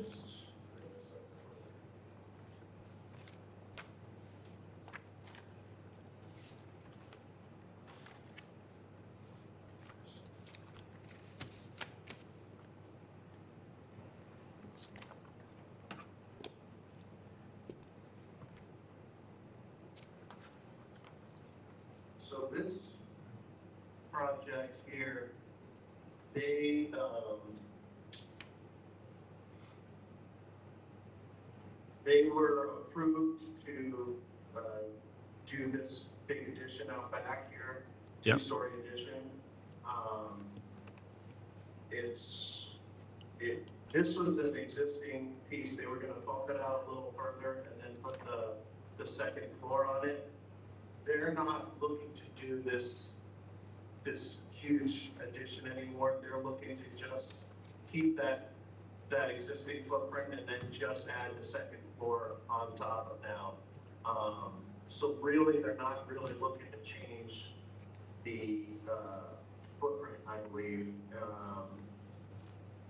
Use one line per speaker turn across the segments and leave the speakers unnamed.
questions?
So this project here, they, um, they were approved to, uh, do this big addition out back here.
Yep.
Two-story addition. Um, it's, it, this was an existing piece, they were gonna bump it out a little further and then put the, the second floor on it they're not looking to do this, this huge addition anymore. They're looking to just keep that, that existing footprint and then just add the second floor on top of now. Um, so really, they're not really looking to change the, uh, footprint, I believe, um,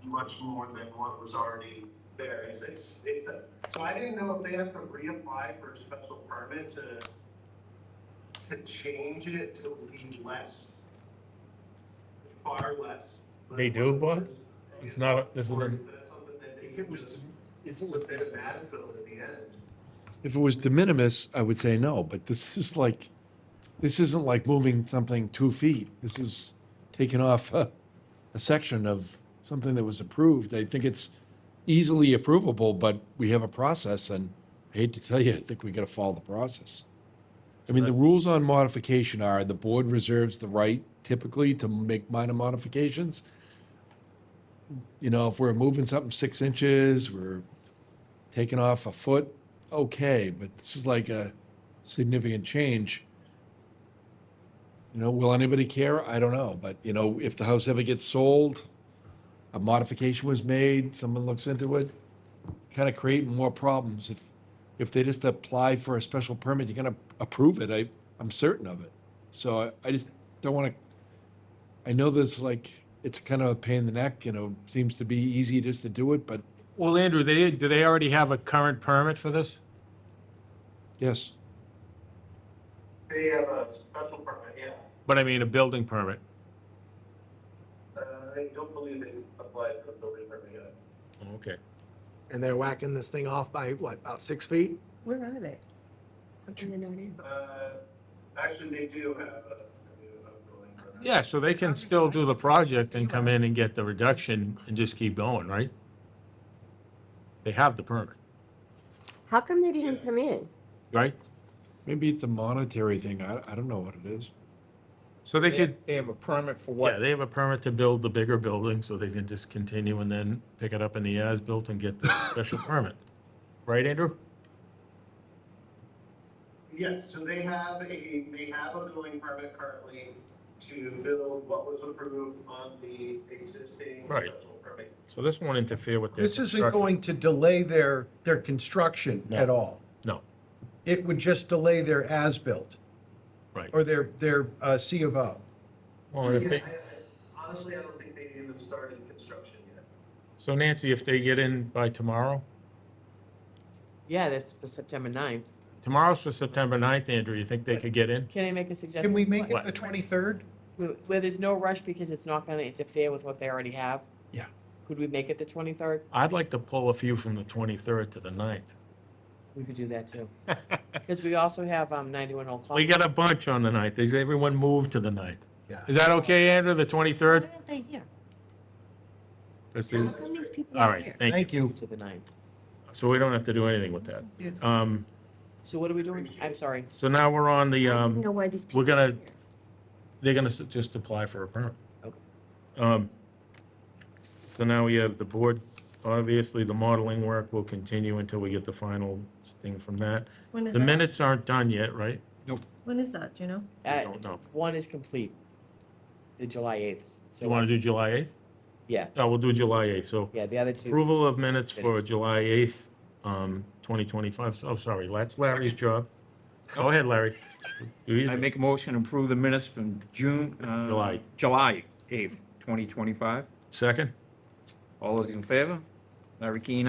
much more than what was already there. It's, it's, it's a, so I didn't know if they have to reapply for a special permit to to change it to be less, far less.
They do, bud? It's not, this
Or
isn't,
if that's something that they
If it
can
was,
just
if it was,
submit a bad bill at the end.
if it was de minimis, I would say no, but this is like, this isn't like moving something two feet. This is taking off a, a section of something that was approved. I think it's easily approvable, but we have a process and I hate to tell you, I think we gotta follow the process. I mean, the rules on modification are the board reserves the right typically to make minor modifications. You know, if we're moving something six inches, we're taking off a foot, okay, but this is like a significant change. You know, will anybody care? I don't know, but you know, if the house ever gets sold, a modification was made, someone looks into it, kind of creating more problems. If if they just apply for a special permit, you're gonna approve it. I I'm certain of it. So I, I just don't want to. I know there's like it's kind of a pain in the neck. You know, seems to be easy just to do it, but
well, Andrew, they, do they already have a current permit for this?
yes,
They have a special permit, yeah.
But I mean, a building permit.
Uh, I don't believe they applied for a building permit yet.
Oh, Okay.
and they're whacking this thing off by what about six feet?
Where are they? I'm in the north end.
Uh, actually, they do have a, they do have a building permit.
Yeah, so they can still do the project and come in and get the reduction and just keep going, right? They have the permit,
How come they didn't come in?
right?
maybe it's a monetary thing. I I don't know what it is.
So they could,
They have a permit for
yeah,
what?
they have a permit to build the bigger building, so they can just continue and then pick it up in the as-built and get the special permit. Right, Andrew?
Yes, so they have a, they have a building permit currently to build what was approved on the existing
Right.
special permit.
So this won't interfere with their
This isn't
construction.
going to delay their, their construction at all.
No,
It would just delay their as-built
right.
or their, their uh, C of O.
Well, if
Yeah,
they,
I- I- Honestly, I don't think they even started construction yet.
so Nancy, if they get in by tomorrow,
Yeah, that's for September 9th.
tomorrow's for September 9th, Andrew, you think they could get in?
Can I make a suggestion?
Can we make
What?
it the 23rd?
Where where there's no rush because it's not gonna interfere with what they already have?
Yeah.
Could we make it the twenty-third?
I'd like to pull a few from the 23rd to the 9th.
We could do that too. Because we also have, um, ninety-one Old Clock.
We got a bunch on the 9th. Is everyone moved to the 9th?
Yeah.
Is that okay, Andrew, the 23rd?
Why aren't they here?
That's
How
the-
come these people
All Um,
aren't
right,
here?
thank you.
Thank
To
you.
the 9th.
So we don't have to do anything with that. Um,
So what are we doing? I'm sorry.
so now we're on the,
I don't
um,
know why these people.
we're gonna,
aren't here.
they're gonna s- just apply for a permit.
Okay.
Um, so now we have the board, obviously, the modeling work will continue until we get the final thing from that.
When is
The
that?
minutes aren't done yet, right?
When is that, do you know?
I
Uh,
don't know.
one is complete. The July eighth.
You want to do July 8th?
Yeah,
No, we'll do July 8th, so
yeah, the other two.
approval of minutes for July 8th, um, 2025. Oh, sorry, that's Larry's job. Go ahead, Larry. Do
I
you-
make a motion to approve the minutes from June, uh.
July.
July eighth, twenty twenty-five.
Second?
All those in favor? Larry Keane,